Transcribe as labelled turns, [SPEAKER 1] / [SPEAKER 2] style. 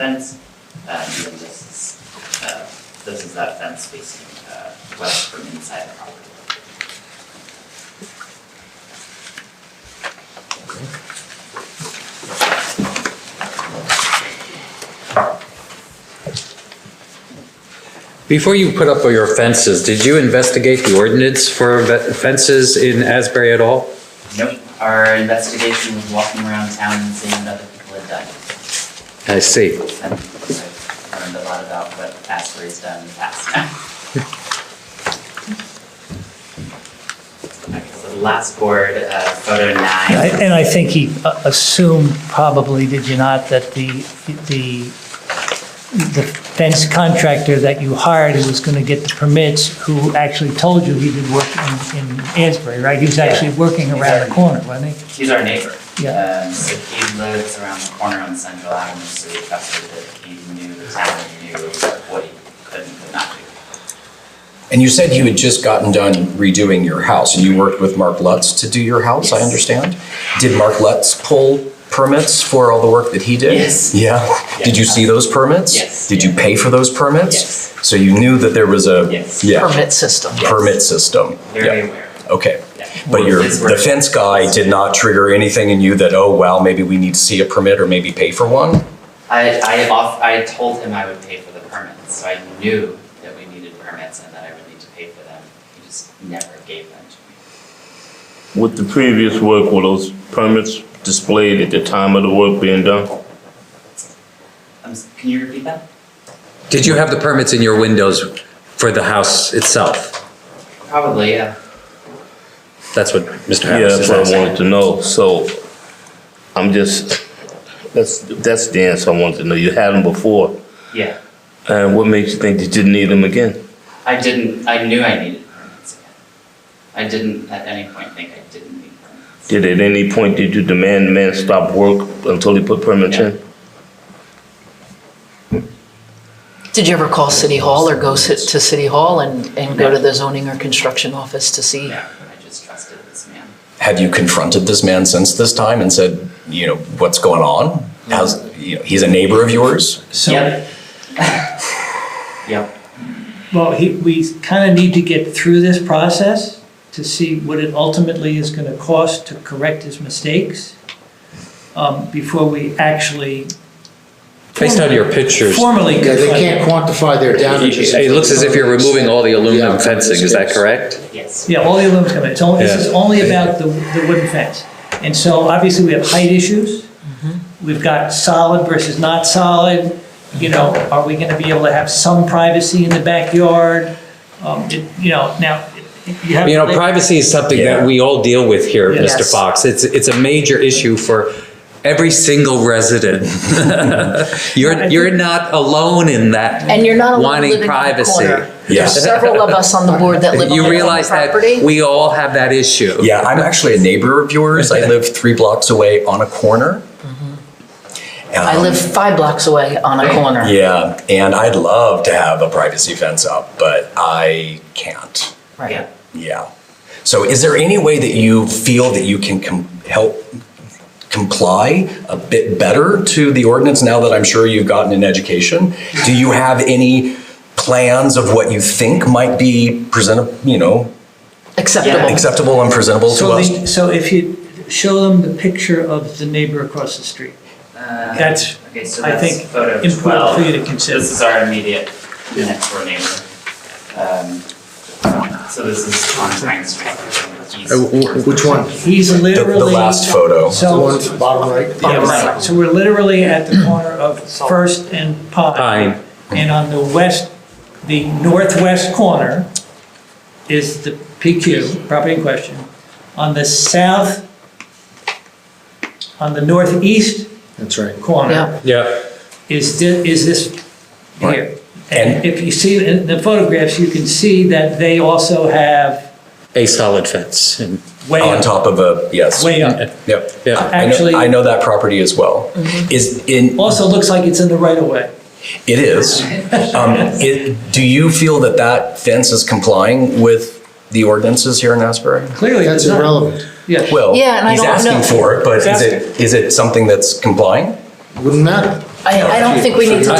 [SPEAKER 1] fence. Uh, and then this is, uh, this is that fence facing, uh, west from inside the property.
[SPEAKER 2] Before you put up your fences, did you investigate the ordinance for ve- fences in Asbury at all?
[SPEAKER 1] Nope, our investigation was walking around town and seeing what other people had done.
[SPEAKER 2] I see.
[SPEAKER 1] And I learned a lot about what Asbury's done in the past Okay, so the last board, uh, photo
[SPEAKER 3] I-
[SPEAKER 1] nine.
[SPEAKER 3] And I think he uh, assumed probably, did you not, that the, the, the fence contractor that you hired who was going to get the permits, who actually told you he did work in, in Asbury, right? He was actually working around the corner, wasn't he?
[SPEAKER 1] He's our neighbor.
[SPEAKER 3] Yeah.
[SPEAKER 1] Um, so he lives around the corner on Central Avenue, so we trusted that he knew the town, he knew what he could and could not do.
[SPEAKER 4] And you said you had just gotten done redoing your house, and you worked with Mark Lutz to do your house, I
[SPEAKER 1] Yes.
[SPEAKER 4] understand? Did Mark Lutz pull permits for all the work that he did?
[SPEAKER 1] Yes.
[SPEAKER 4] Yeah? Did you
[SPEAKER 1] Yeah.
[SPEAKER 4] see those permits?
[SPEAKER 1] Yes.
[SPEAKER 4] Did you pay for those permits?
[SPEAKER 1] Yes.
[SPEAKER 4] So you knew that there was a?
[SPEAKER 1] Yes.
[SPEAKER 4] yeah,
[SPEAKER 5] permit system.
[SPEAKER 4] Permit system?
[SPEAKER 1] Very
[SPEAKER 4] Yeah.
[SPEAKER 1] aware.
[SPEAKER 4] Okay.
[SPEAKER 1] Yeah.
[SPEAKER 4] But your,
[SPEAKER 1] His word.
[SPEAKER 4] the fence guy did not trigger anything in you that, oh, well, maybe we need to see a permit or maybe pay for one?
[SPEAKER 1] I, I off, I told him I would pay for the permits, so I knew that we needed permits and that I would need to pay for them. He just never gave them to me.
[SPEAKER 6] With the previous work, were those permits displayed at the time of the work being done?
[SPEAKER 1] Um, s- can you repeat that?
[SPEAKER 2] Did you have the permits in your windows for the house itself?
[SPEAKER 1] Probably, yeah.
[SPEAKER 2] That's what Mr.
[SPEAKER 6] Yeah,
[SPEAKER 2] Harris
[SPEAKER 6] that's
[SPEAKER 2] is
[SPEAKER 6] what I
[SPEAKER 2] asking.
[SPEAKER 6] wanted to know, so I'm just, that's, that's the answer I wanted to know. You had them before,
[SPEAKER 1] Yeah.
[SPEAKER 6] and what makes you think that you need them again?
[SPEAKER 1] I didn't, I knew I needed permits again. I didn't at any point think I didn't need permits.
[SPEAKER 6] Did at any point, did you demand the man stop work until he put permits in?
[SPEAKER 5] Did you ever call City Hall or go sit to City Hall and, and go to the zoning or construction office to see?
[SPEAKER 1] Yeah, I just trusted this man.
[SPEAKER 4] Have you confronted this man since this time and said, you know, what's going on? How's, you know, he's a neighbor of yours? So
[SPEAKER 1] Yep. Yep,
[SPEAKER 3] Well, he, we kind of need to get through this process to see what it ultimately is going to cost to correct his mistakes um, before we actually
[SPEAKER 2] Based on your pictures,
[SPEAKER 3] formally
[SPEAKER 7] Yeah, they
[SPEAKER 3] confront
[SPEAKER 7] can't
[SPEAKER 3] him.
[SPEAKER 7] quantify their damages.
[SPEAKER 2] it looks as if you're removing all the aluminum
[SPEAKER 7] Yeah.
[SPEAKER 2] fencing, is that correct?
[SPEAKER 1] yes.
[SPEAKER 3] Yeah, all the aluminum's coming in. It's only, this is
[SPEAKER 2] Yeah.
[SPEAKER 3] only about the, the wooden fence. And so obviously we have height issues.
[SPEAKER 2] Mm-hmm.
[SPEAKER 3] We've got solid versus not solid. You know, are we gonna be able to have some privacy in the backyard? Um, it, you know, now, you have.
[SPEAKER 2] You know, privacy is something that we all deal with here,
[SPEAKER 3] Yeah.
[SPEAKER 2] Mr.
[SPEAKER 5] Yes.
[SPEAKER 2] Fox. It's, it's a major issue for every single resident. You're, you're not alone in that.
[SPEAKER 5] And you're not alone
[SPEAKER 2] Wanting
[SPEAKER 5] living in the
[SPEAKER 2] privacy.
[SPEAKER 5] corner.
[SPEAKER 4] Yeah.
[SPEAKER 5] There's several of us on the board that live on
[SPEAKER 2] You
[SPEAKER 5] their own
[SPEAKER 2] realize that
[SPEAKER 5] property.
[SPEAKER 2] we all have that issue.
[SPEAKER 4] Yeah, I'm actually a neighbor of yours. I live three blocks away on a corner.
[SPEAKER 5] I
[SPEAKER 4] Um,
[SPEAKER 5] live five blocks away on a corner.
[SPEAKER 4] Yeah, and I'd love to have a privacy fence up, but I can't.
[SPEAKER 5] Right.
[SPEAKER 1] Yeah.
[SPEAKER 4] Yeah. So is there any way that you feel that you can com- help comply a bit better to the ordinance now that I'm sure you've gotten an education? Do you have any plans of what you think might be presentable, you know,
[SPEAKER 5] Acceptable.
[SPEAKER 4] acceptable and presentable to
[SPEAKER 3] So
[SPEAKER 4] us?
[SPEAKER 3] the, so if you show them the picture of the neighbor across the street, that's,
[SPEAKER 1] Uh, Okay, so
[SPEAKER 3] I
[SPEAKER 1] that's
[SPEAKER 3] think,
[SPEAKER 1] photo
[SPEAKER 3] important for you to
[SPEAKER 1] 12.
[SPEAKER 3] consider.
[SPEAKER 1] This is our immediate next door neighbor. Um, So this is on Pine Street. He's-
[SPEAKER 2] Uh, w- w-
[SPEAKER 7] Which one?
[SPEAKER 3] he's
[SPEAKER 4] The,
[SPEAKER 3] literally.
[SPEAKER 4] the last photo.
[SPEAKER 7] The
[SPEAKER 3] So,
[SPEAKER 7] one at the bottom right?
[SPEAKER 3] Yeah,
[SPEAKER 1] Bottom
[SPEAKER 3] right.
[SPEAKER 1] right.
[SPEAKER 3] So we're literally at the corner of First and
[SPEAKER 2] Pine.
[SPEAKER 3] Pine. And on the west, the northwest corner is the PQ, property in question. On the south, on the northeast
[SPEAKER 7] That's right.
[SPEAKER 3] corner
[SPEAKER 5] Yeah.
[SPEAKER 2] Yeah.
[SPEAKER 3] is, thi- is this here. And
[SPEAKER 4] And-
[SPEAKER 3] if you see in the photographs, you can see that they also have
[SPEAKER 2] a solid fence. and-
[SPEAKER 3] way
[SPEAKER 4] On
[SPEAKER 3] up,
[SPEAKER 4] top of a, yes.
[SPEAKER 3] way up.
[SPEAKER 4] Yep.
[SPEAKER 2] Yeah.
[SPEAKER 4] I know-
[SPEAKER 3] Actually- Mm-hmm.
[SPEAKER 4] I know that property as well. Is, in,
[SPEAKER 3] Also looks like it's in the right of way.
[SPEAKER 4] it is. Um, it, do you feel that that fence is complying with the ordinances here in Asbury?
[SPEAKER 3] Clearly it's
[SPEAKER 7] That's
[SPEAKER 3] not.
[SPEAKER 7] irrelevant.
[SPEAKER 3] Yeah.
[SPEAKER 4] Well,
[SPEAKER 5] Yeah, and I
[SPEAKER 4] he's
[SPEAKER 5] don't know.
[SPEAKER 4] asking for it, but is
[SPEAKER 3] He's
[SPEAKER 4] it, is it something that's complying?
[SPEAKER 7] Wouldn't matter.
[SPEAKER 5] I, I don't think we need to